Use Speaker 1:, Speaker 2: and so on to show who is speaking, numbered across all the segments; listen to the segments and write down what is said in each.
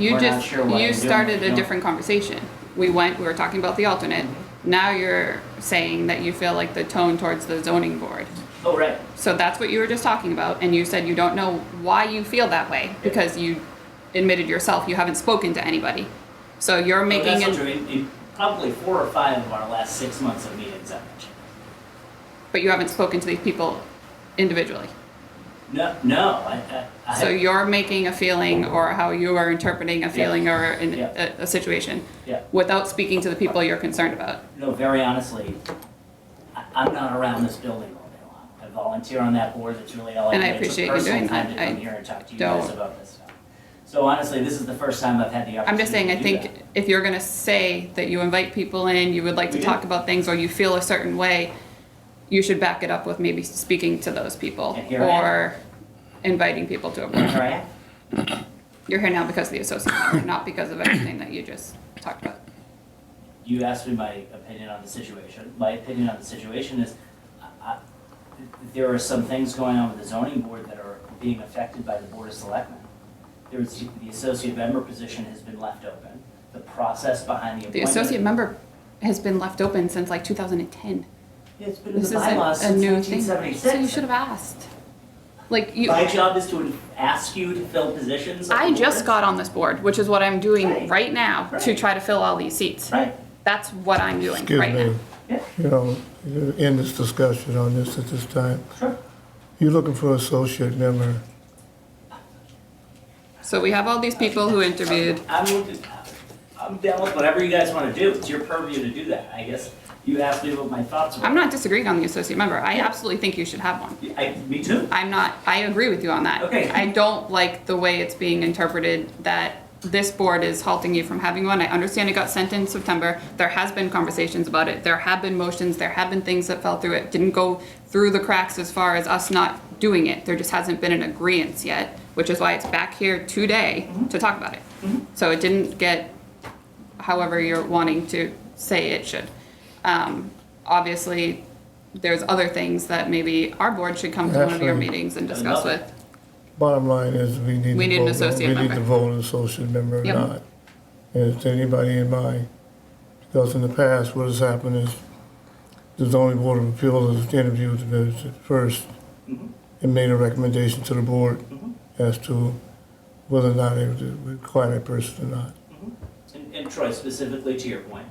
Speaker 1: You
Speaker 2: We're not
Speaker 1: just,
Speaker 2: sure what
Speaker 1: you
Speaker 2: we're
Speaker 1: started
Speaker 2: doing,
Speaker 1: a
Speaker 2: no.
Speaker 1: different conversation. We went, we were talking about the alternate.
Speaker 2: Mm-hmm.
Speaker 1: Now you're saying that you feel like the tone towards the zoning board.
Speaker 2: Oh, right.
Speaker 1: So that's what you were just talking about, and you said you don't know why you feel that way, because you admitted yourself you haven't spoken to anybody. So you're
Speaker 2: Well,
Speaker 1: making
Speaker 2: That's
Speaker 1: it,
Speaker 2: not true. In- in probably four or five of our last six months of meetings, I mentioned.
Speaker 1: but you haven't spoken to these people individually.
Speaker 2: No, no, I, I,
Speaker 1: So
Speaker 2: I,
Speaker 1: you're making a feeling or how you are interpreting a feeling or an,
Speaker 2: Yeah.
Speaker 1: a, a situation
Speaker 2: yeah,
Speaker 1: without speaking to the people you're concerned about.
Speaker 2: no, very honestly, I, I'm not around this building all day long. I volunteer on that board, that's really all I do.
Speaker 1: And I
Speaker 2: It took
Speaker 1: appreciate you doing
Speaker 2: personal time
Speaker 1: that.
Speaker 2: to come
Speaker 1: I
Speaker 2: here and talk to you guys
Speaker 1: don't-
Speaker 2: about this stuff. So honestly, this is the first time I've had the
Speaker 1: I'm just
Speaker 2: opportunity to do
Speaker 1: saying, I think
Speaker 2: that.
Speaker 1: if you're gonna say that you invite people in, you would like to
Speaker 2: We
Speaker 1: talk
Speaker 2: did.
Speaker 1: about things, or you feel a certain way, you should back it up with maybe speaking to those people,
Speaker 2: And here I am.
Speaker 1: or inviting people to a board.
Speaker 2: Here I am.
Speaker 1: You're here now because of the associate member, not because of anything that you just talked about.
Speaker 2: you asked me my opinion on the situation. My opinion on the situation is, I- I- there are some things going on with the zoning board that are being affected by the board of selectmen. There is, the associate member position has been left open. The process behind the
Speaker 1: The
Speaker 2: appointment.
Speaker 1: associate member has been left open since like 2010.
Speaker 2: It's been in
Speaker 1: This
Speaker 2: the
Speaker 1: is a
Speaker 2: bylaws
Speaker 1: a
Speaker 2: since
Speaker 1: new thing.
Speaker 2: nineteen
Speaker 1: So you
Speaker 2: seventy-six.
Speaker 1: should have asked. Like, you,
Speaker 2: My job is to ask you to fill positions. on
Speaker 1: I
Speaker 2: the
Speaker 1: just
Speaker 2: boards.
Speaker 1: got on this board, which is what I'm doing
Speaker 2: Right.
Speaker 1: right now, to
Speaker 2: Right.
Speaker 1: try to fill all these seats.
Speaker 2: Right,
Speaker 1: That's what I'm doing
Speaker 3: Excuse
Speaker 1: right now.
Speaker 3: me,
Speaker 2: yeah,
Speaker 3: you know, you end this discussion on this at this time.
Speaker 2: sure.
Speaker 3: You're looking for associate member.
Speaker 1: So we have all these people who interviewed.
Speaker 2: I'm, looking- I'm down with whatever you guys wanna do. It's your purview to do that. I guess you asked me what my thoughts were.
Speaker 1: I'm not disagreeing on the associate member. I absolutely think you should have one.
Speaker 2: I, me too.
Speaker 1: I'm not, I agree with you on that.
Speaker 2: Okay.
Speaker 1: I don't like the way it's being interpreted that this board is halting you from having one. I understand it got sent in September. There has been conversations about it. There have been motions. There have been things that fell through. It didn't go through the cracks as far as us not doing it. There just hasn't been an agreeance yet, which is why it's back here today to talk about it. So it didn't get however you're wanting to say it should. Um, obviously, there's other things that maybe our board should come to one of your
Speaker 3: Actually-
Speaker 1: meetings and discuss with.
Speaker 3: Bottom line is, we need to vote.
Speaker 1: We need an associate
Speaker 3: We need
Speaker 1: member.
Speaker 3: to vote an associate member or
Speaker 1: Yep.
Speaker 3: not. And is there anybody in mind? Because in the past, what has happened is the zoning board of appeals has interviewed the person first
Speaker 2: Mhm.
Speaker 1: Mm-hmm.
Speaker 3: and made a recommendation to the board
Speaker 2: Mhm.
Speaker 3: as to whether or not they would require that person or not.
Speaker 2: Mm-hmm. And, and Troy, specifically to your point,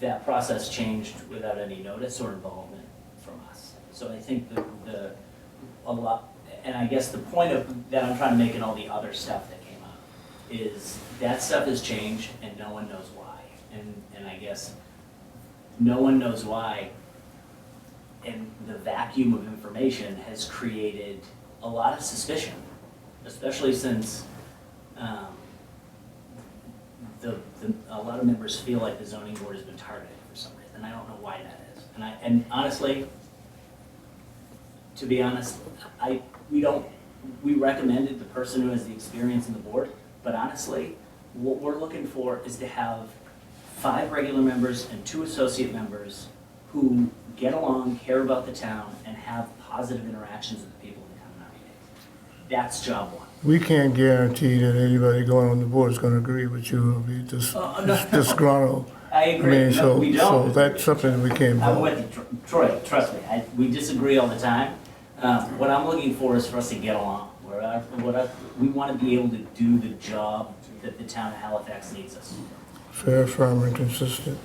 Speaker 2: that process changed without any notice or involvement from us. So I think the, the, a lot, and I guess the point of, that I'm trying to make in all the other stuff that came up is that stuff has changed and no one knows why. And, and I guess no one knows why. And the vacuum of information has created a lot of suspicion, especially since, um, the, the, a lot of members feel like the zoning board has been targeted for some reason, and I don't know why that is. And I, and honestly, to be honest, I, we don't, we recommended the person who has the experience in the board, but honestly, what we're looking for is to have five regular members and two associate members who get along, care about the town, and have positive interactions with the people in the town. That's job one.
Speaker 3: We can't guarantee that anybody going on the board is gonna agree with you or be dis-
Speaker 2: Oh, no.
Speaker 3: disgruntled.
Speaker 2: I
Speaker 3: I
Speaker 2: agree,
Speaker 3: mean,
Speaker 2: no,
Speaker 3: so,
Speaker 2: we don't.
Speaker 3: so that's something that we can't
Speaker 2: I'm
Speaker 3: vote.
Speaker 2: with you, Tr- Troy, trust me, I, we disagree all the time. Uh, what I'm looking for is for us to get along, where I, what I, we wanna be able to do the job that the town of Halifax needs us,
Speaker 3: Fair, firm, and consistent.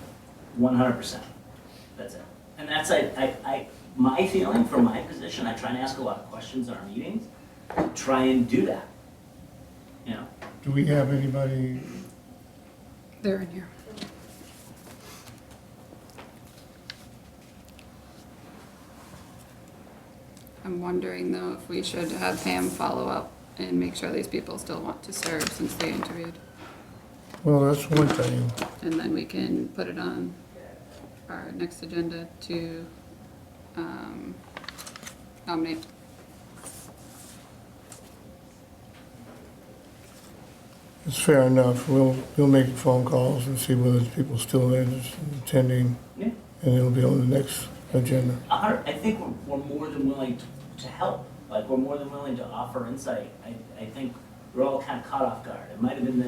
Speaker 2: one hundred percent. That's it. And that's, I, I, I, my feeling from my position, I try and ask a lot of questions in our meetings, try and do that. You know,
Speaker 3: Do we have anybody,
Speaker 1: They're in here. I'm wondering though if we should have Pam follow up and make sure these people still want to serve since they interviewed.
Speaker 3: well, that's one thing.
Speaker 1: And then we can put it on our next agenda to um, nominate.
Speaker 3: It's fair enough. We'll, we'll make phone calls and see whether people still are interested in attending,
Speaker 2: yeah,
Speaker 3: and it'll be on the next agenda.
Speaker 2: a hundred, I think we're, we're more than willing to, to help, like, we're more than willing to offer insight. I, I think we're all kind of caught off guard. It might have been the